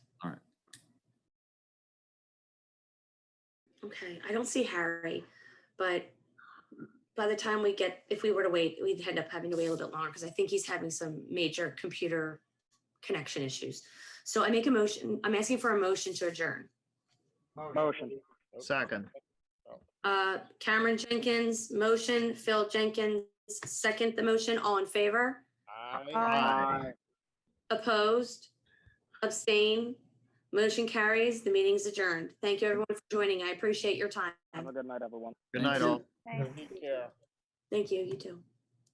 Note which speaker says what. Speaker 1: Okay, I don't see Harry, but by the time we get, if we were to wait, we'd end up having to wait a little bit longer because I think he's having some major computer connection issues. So I make a motion, I'm asking for a motion to adjourn.
Speaker 2: Motion.
Speaker 3: Second.
Speaker 1: Uh, Cameron Jenkins, motion, Phil Jenkins, second the motion, all in favor?
Speaker 3: Aye.
Speaker 1: Opposed? Abstain? Motion carries, the meeting's adjourned. Thank you everyone for joining. I appreciate your time.
Speaker 2: Have a good night, everyone.
Speaker 3: Good
Speaker 4: Thank
Speaker 3: night,
Speaker 4: you.
Speaker 3: all.
Speaker 5: Thanks.
Speaker 1: Thank you, you too.